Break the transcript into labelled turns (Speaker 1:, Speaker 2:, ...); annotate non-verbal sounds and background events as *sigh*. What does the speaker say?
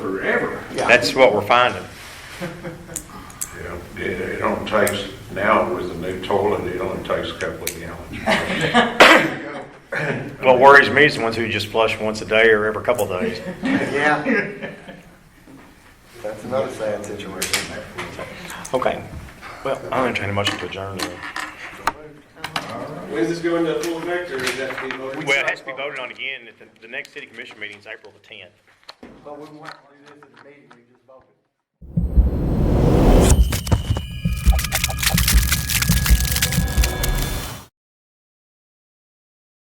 Speaker 1: forever.
Speaker 2: Yeah,
Speaker 3: That's what we're finding.
Speaker 4: You know, It, it only takes, now with the new toilet, it only takes a couple of gallons.
Speaker 3: What worries me is the ones who just flush once a day or every couple of days.
Speaker 2: *laughs* yeah. That's another sad situation.
Speaker 3: Okay. Well, I'm entertaining a motion to adjourn. then.
Speaker 1: When's this going to full effect, or is that to be voted?
Speaker 3: Well, it has to be voted on again at the, the next city commission meeting is April the tenth.
Speaker 2: But we want to do this in the meeting, we